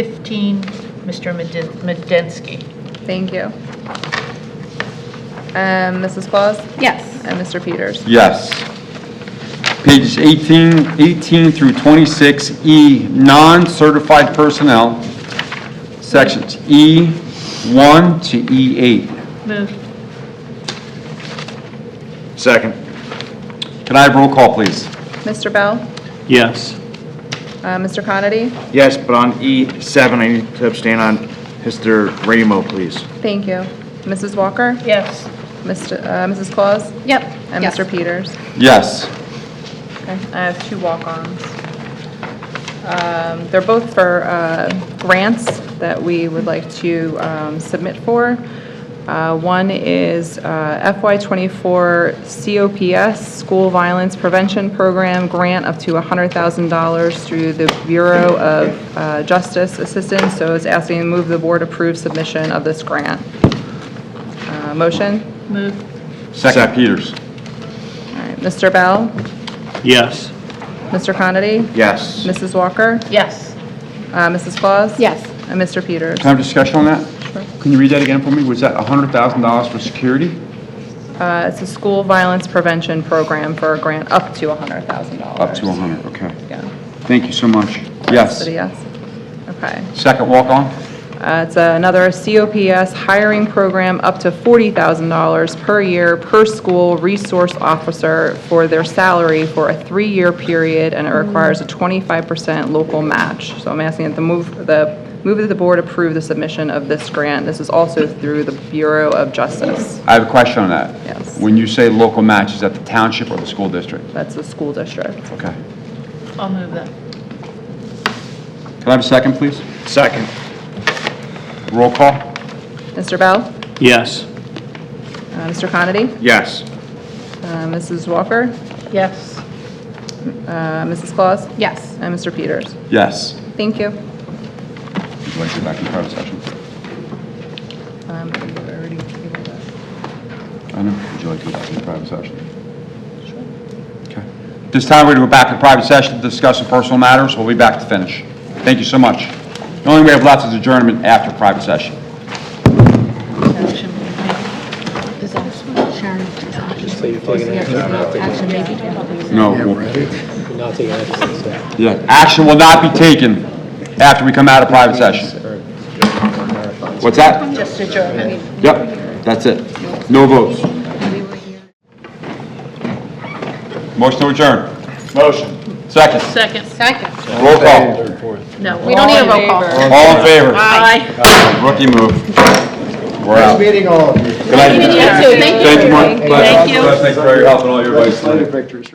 15, Mr. Meden- Medensky. Thank you. Um, Mrs. Claus Yes. and Mr. Peters. Yes. Pages 18, 18 through 26E, non-certified personnel, sections E1 to E E8. Move. Second. Can I have roll call, please? Mr. Bell, yes, uh, Mr. Conity, Yes, but on E7, I need to abstain on Mr. Ramo, please. thank you. Mrs. Walker, Yes. Mr. uh, Mrs. Claus, Yep. and Yes. Mr. Peters. Yes. Okay, I have two walk-ons. Um, They're both for uh, grants that we would like to um, submit for. Uh, One is uh, FY24 COPS School Violence Prevention Program Grant up to $100,000 through the Bureau of uh, Justice Assistance. So it's asking to move the board approve submission of this grant. Uh, Motion? Move. Second, Peters. All right, Mr. Bell, yes, Mr. Conity, Yes. Mrs. Walker, Yes. Uh, Mrs. Claus? Yes. And Mr. Peters? Can I have discussion on that? Sure. Can you read that again for me? Was that $100,000 for security? Uh, It's a school violence prevention program for a grant up to $100,000. Up to 100, okay. Yeah. Thank you so much. Is Yes. it a yes? Okay. Second walk-on? Uh, It's another COPS hiring program up to $40,000 per year per school resource officer for their salary for a three-year period, and it requires a 25% local match. So I'm asking that the move, the, move that the board approve the submission of this grant. This is also through the Bureau of Justice. I have a question on that. Yes. When you say local match, is that the township or the school district? That's the school district. Okay. I'll move that. Can I have a second, please? Second. Roll call? Mr. Bell? yes, Uh, Mr. Conity? Yes. Uh, Mrs. Walker? Yes. Uh, Mrs. Claus? Yes. And Mr. Peters? Yes. Thank you. Would you like to go back in private session? Um, I think we already tabled that. I know. Would you like to go back in private session? Sure. Okay. This time, we're going to go back to private session to discuss some personal matters. We'll be back to finish. Thank you so much. The only way we have left is adjournment after private session. Action may be made. Is that Sharon? Just leave Action may be taken. No. Yeah, action will not be taken after we come out of private session. What's that? Just adjournment. Yep, that's it. No votes. Motion to adjourn. Motion. Second. Second. Second. Roll call. No. We don't need a roll call. All in favor? Aye. Rookie move. We're out. Good Meeting all of you. night. You too. Thank you. Thank you, Mark. Thank you. Thanks for your help and all your advice. Legislative victories.